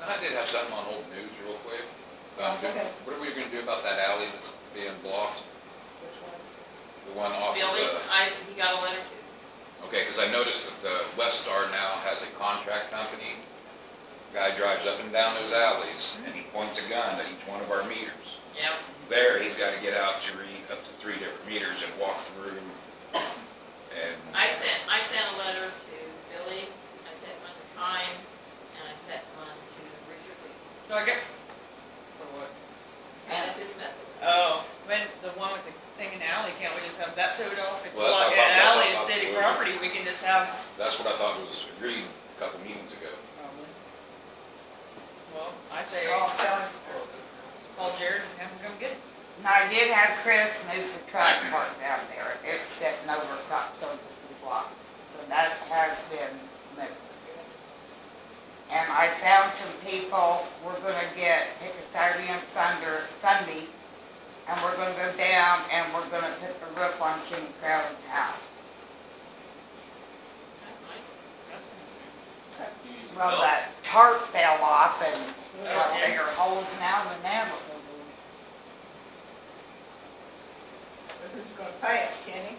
And I did have something on old news real quick. about doing- Oh, Okay. What are we gonna do about that alley that's being blocked, Which one? the one off of, Billy's, uh, I, he got a letter too. okay, cause I noticed that, uh, West Star now has a contract company. Guy drives up and down those alleys and he points a gun at each one of our meters. Yep. There, he's gotta get out to read up to three different meters and walk through and, I sent, I sent a letter to Billy, I sent one to Time, and I sent one to Richard Lee. No, I get, for what? And this message. Oh, when the one with the thing in the alley, can't we just have that towed off? It's Well, that's like not an pop- that's alley, not it's city popular. property, we can just have. that's what I thought was agreed a couple meetings ago. Well, I say, Oh, tell him. call Jared and have him come get it. And I did have Chris move the truck park down there, it's stepping over crop services lot, so that has been moved. And I found some people, we're gonna get, pick a Saturday and Sunder, Sunday, and we're gonna go down and we're gonna put the roof on King Crowley's house. That's nice. Well, that tarp fell off and got Oh. Yeah. bigger holes now than ever. But Who's gonna pay it, Kenny?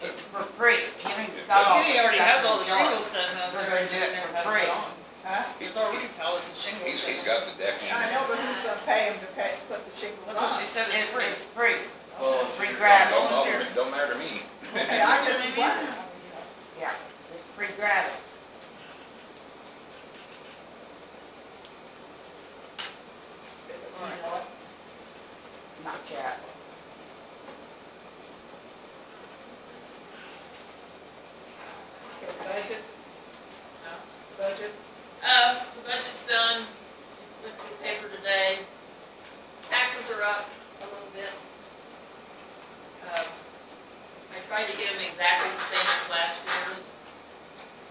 It's for free, Kenny's got all the Kenny Oh, already has all the stuff in jar. shingles set up, We're there, gonna he do just it never for had it put free. on. Huh? There's already pallets of shingles. He's, set he's up. got the deck in. I know, but who's gonna pay him to pay, put the shingles That's what she on? said, it's It's- free. it's- Free. Oh, Free Don't, gratis. don't- don't matter to me. Okay, I just wondered. Yeah, it's free gratis. You know what? Not yet. Okay, budget, No. budget, Uh, the budget's done, went to the paper today. Taxes are up a little bit. Um, I tried to get them exactly the same as last year's,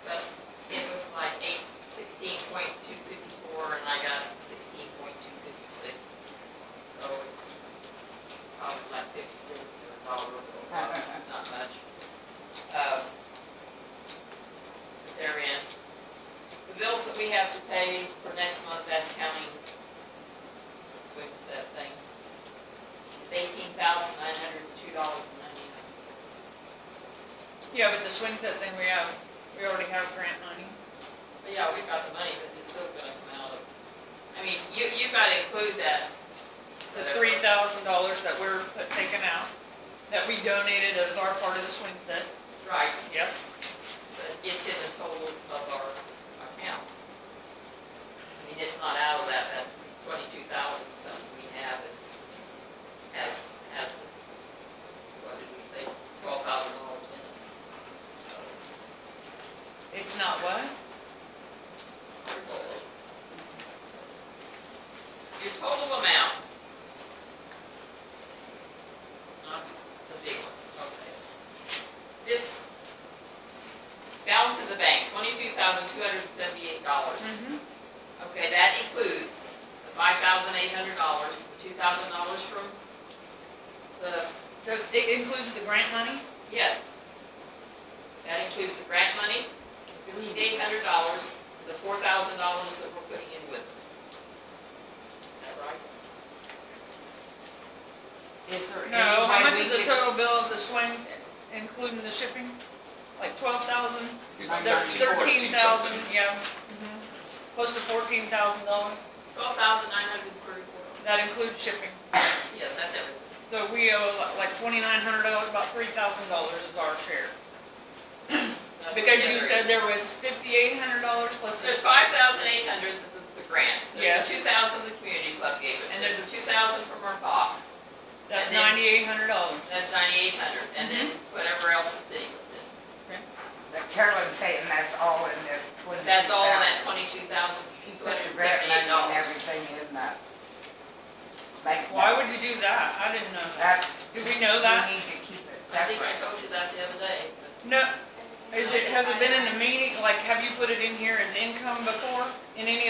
but it was like eight, sixteen point two fifty-four, and I got sixteen point two fifty-six. So it's probably like fifty cents or a dollar, a little dollar, not much. Um, They're in. The bills that we have to pay for next month, that's counting the swing set thing, is eighteen thousand nine hundred and two dollars and ninety-nine cents. Yeah, but the swing set thing we have, we already have grant money. But yeah, we've got the money, but it's still gonna come out of, I mean, you, you've gotta include that. the three thousand dollars that we're put- taking out, that we donated as our part of the swing set, Right, yes? but it's in the total of our account. I mean, it's not out of that, that twenty-two thousand something we have is, has, has the, what did we say, twelve thousand dollars in it. So, It's not what? Your total amount. Not the big one, okay. This balance in the bank, twenty-two thousand two hundred and seventy-eight dollars. Okay, that includes the five thousand eight hundred dollars, the two thousand dollars from the, So it includes the grant money? yes. That includes the grant money, fifty-eight hundred dollars, the four thousand dollars that we're putting in with them. Is that right? Is there any No, way how much we is the could- total bill of the swing, including the shipping? Like twelve thousand, He's like Thirteen, thirteen thousand, something. yeah. mhm. Close to fourteen thousand dollars, Twelve thousand nine hundred and thirty-four. that includes shipping. Yes, that's everything. So we owe li- like twenty-nine hundred dollars, about three thousand dollars is our share. That's what Because the you other said is. there was fifty-eight hundred dollars plus There's this, five thousand eight hundred that was the grant. Yes. There's the two thousand the community club gave us. And There's the two thousand from our BOC. that's and then- ninety-eight hundred dollars. That's ninety-eight hundred. And then Mm-hmm. whatever else the city puts in. That Carolyn's saying that's all in this But twenty. that's all in that twenty-two thousand two hundred and seventy-eight dollars. Everything in that. bank Why note. would you do that? I didn't know that. That's, Do we know we that? need to keep it I think I separate. told you that the other day. but No, is it, has it been in the meeting, like, have you put it in here as income before, in any